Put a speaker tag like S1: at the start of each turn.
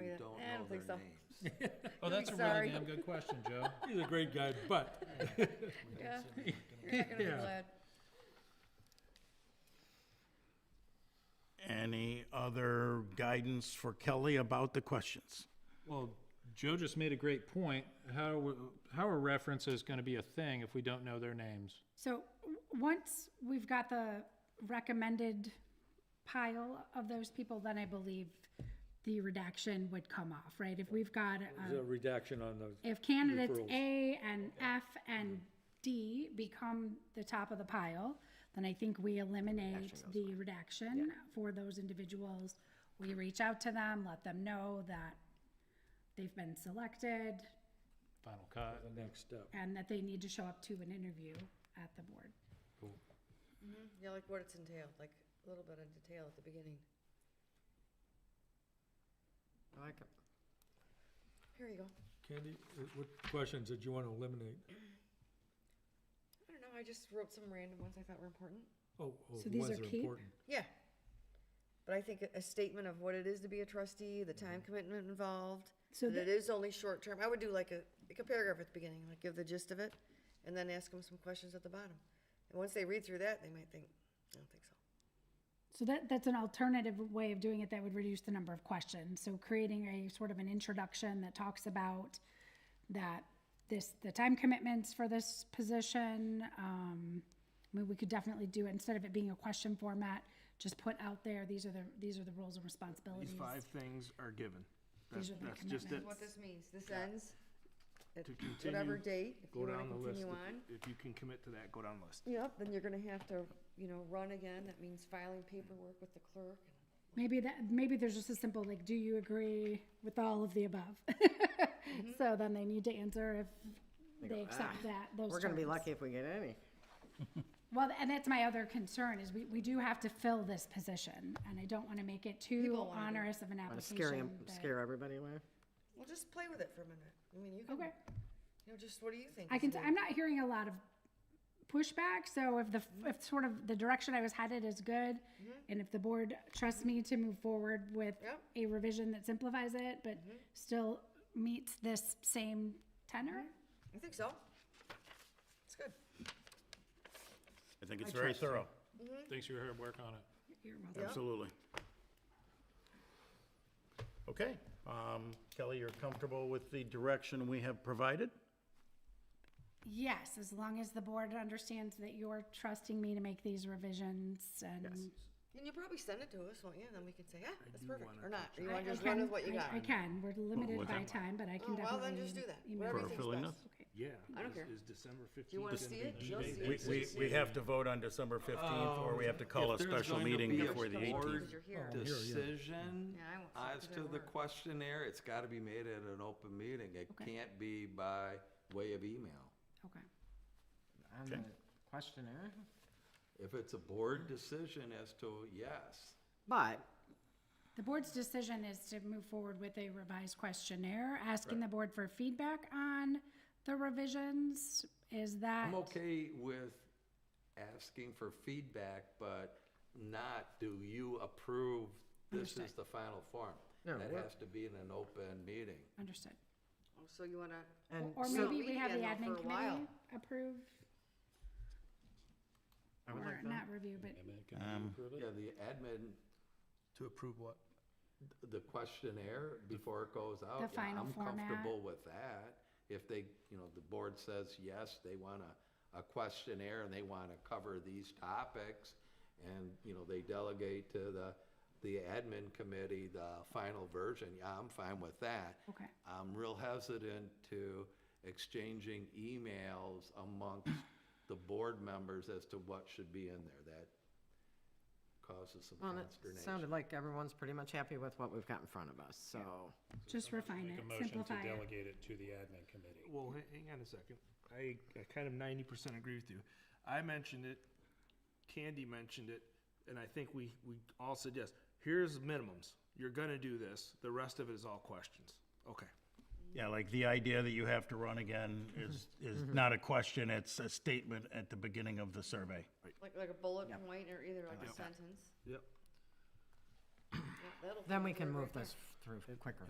S1: "Eh, don't think so.
S2: Oh, that's a
S1: Sorry.
S2: really damn good question, Joe.
S3: He's a great guy, but,
S1: Yeah. You're not gonna be
S3: Yeah.
S1: glad.
S4: Any other guidance for Kelly about the questions?
S2: Well, Joe just made a great point. How, are we- how are references going to be a thing if we don't know their names?
S5: So w- once we've got the recommended pile of those people, then I believe the redaction would come off, right? If we've got,
S3: there's
S5: um,
S3: a redaction on those.
S5: if candidates
S3: Referrals.
S5: A and F and D become the top of the pile, then I think we eliminate the redaction for those individuals. We reach out to them, let them know that they've been selected
S2: Final cut.
S3: the next step.
S5: and that they need to show up to an interview at the board.
S1: Yeah, like what it's entailed, like a little bit of detail at the beginning.
S6: I like it.
S1: Here you go.
S3: Candy, uh, what questions did you want to eliminate?
S1: I don't know, I just wrote some random ones I thought were important.
S3: Oh, oh,
S5: So these
S3: ones
S5: are
S3: that
S5: keep?
S3: important.
S1: Yeah. But I think a- a statement of what it is to be a trustee, the
S6: Mm-hmm.
S1: time commitment involved,
S5: So
S1: that it
S5: the-
S1: is only short term. I would do like a, like a paragraph at the beginning, like give the gist of it, and then ask them some questions at the bottom. And once they read through that, they might think, I don't think so.
S5: So that, that's an alternative way of doing it that would reduce the number of questions. So creating a sort of an introduction that talks about that this, the time commitments for this position. Um, I mean, we could definitely do it, instead of it being a question format, just put out there, these are the, these are the roles and responsibilities.
S6: These five things are given. That's,
S5: These are the
S6: that's just it.
S5: commitments.
S1: What this means, this ends at
S6: To continue,
S1: whatever date, if you
S6: Go
S1: wanna
S6: down the list.
S1: continue
S6: If-
S1: on.
S6: If you can commit to that, go down the list.
S1: Yep, then you're gonna have to, you know, run again. That means filing paperwork with the clerk.
S5: Maybe that, maybe there's just a simple, like, do you agree with all of the above?
S6: Mm-hmm.
S5: So then they need to answer if they accept that, those
S6: "Ah, We're gonna be
S5: terms.
S6: lucky if we get any.
S5: Well, and that's my other concern is we, we do have to fill this position and I don't want to make it too
S1: People wanna do it.
S5: onerous of an
S6: Wanna scare
S5: application.
S6: him,
S5: that-
S6: scare everybody away?
S1: Well, just play with it for a minute. I mean, you can,
S5: Okay.
S1: you know, just what do you think?
S5: I
S1: is
S5: can,
S1: good?
S5: I'm not hearing a lot of pushback. So if the, if sort of the direction I was headed is good
S6: Mm-hmm.
S5: and if the board trusts me to move forward with
S1: Yep.
S5: a revision that simplifies it, but
S6: Mm-hmm.
S5: still meets this same tenor,
S6: Mm-hmm.
S1: I think so. It's good.
S4: I think it's very thorough.
S2: Thanks for your hard work on it.
S5: you're welcome.
S4: Absolutely. Okay, um, Kelly, you're comfortable with the direction we have provided?
S5: Yes, as long as the board understands that you're trusting me to make these revisions and
S1: And you'll probably send it to us, won't you? And then we can say, yeah, that's
S6: do
S1: perfect,
S6: wanna
S1: or not. Or you
S5: I-
S1: want to
S5: I
S1: just run with
S5: can-
S1: what you
S5: I-
S1: got?
S5: I can, we're limited
S4: with
S5: by
S4: that?
S5: time, but I
S1: Oh,
S5: can
S1: well,
S5: definitely.
S1: then just do that.
S5: email
S1: Whatever
S4: For
S1: you
S5: it.
S1: think's
S4: filling
S1: best.
S4: this?
S5: Okay.
S7: Yeah.
S1: I don't care.
S7: Is December fifteenth.
S1: Do you want to see it? You'll see
S4: We,
S1: it.
S4: we, we have to vote on December fifteenth, or we have to call a
S7: Um, If there's
S4: special
S7: going to
S4: meeting
S7: be a
S4: before the
S7: board
S4: eighteenth. Oh,
S1: Because you're here.
S7: Decision
S1: Yeah, I won't talk
S7: as
S1: to
S7: to
S1: that
S7: the
S1: word.
S7: questionnaire, it's gotta be made at an open meeting. It
S5: Okay.
S7: can't be by way of email.
S5: Okay.
S6: On the questionnaire?
S7: If it's a board decision as to yes,
S6: But
S5: The board's decision is to move forward with a revised questionnaire, asking the board for feedback on the revisions. Is that?
S7: I'm okay with asking for feedback, but not do you approve this is the final form?
S6: No,
S7: That
S6: we're-
S7: has to be in an open meeting.
S5: Understood.
S1: Oh, So you want to?
S5: Or
S6: And
S5: or
S1: so-
S5: maybe we have the
S1: Meeting
S5: admin
S1: for a while.
S5: committee approve,
S6: I would
S5: or
S6: like that.
S5: not review, but
S7: Yeah, the admin. To approve what? The questionnaire before it goes out.
S5: The
S7: Yeah,
S5: final
S7: I'm
S5: format.
S7: comfortable with that. If they, you know, the board says, yes, they want a, a questionnaire and they want to cover these topics. And, you know, they delegate to the, the admin committee the final version. Yeah, I'm fine with that.
S5: Okay.
S7: I'm real hesitant to exchanging emails amongst the board members as to what should be in there. That causes some
S6: Well, it sounded
S7: consternation.
S6: like everyone's pretty much happy with what we've got in front of us, so.
S5: just refine
S2: Make a
S5: it,
S2: motion to
S5: simplify it.
S2: delegate it to the admin committee.
S8: Well, ha- hang on a second. I, I kind of ninety percent agree with you. I mentioned it, Candy mentioned it, and I think we, we all said yes. Here's minimums. You're gonna do this. The rest of it is all questions. Okay.
S4: Yeah, like the idea that you have to run again is, is
S7: Mm-hmm.
S4: not a question, it's a statement at the beginning of the survey.
S1: Like, like a bullet point or either like a sentence.
S8: Yep.
S1: Yeah, that'll
S6: Then
S1: fit
S6: we
S1: the
S6: can
S1: word
S6: move
S1: right there.
S6: this through quicker.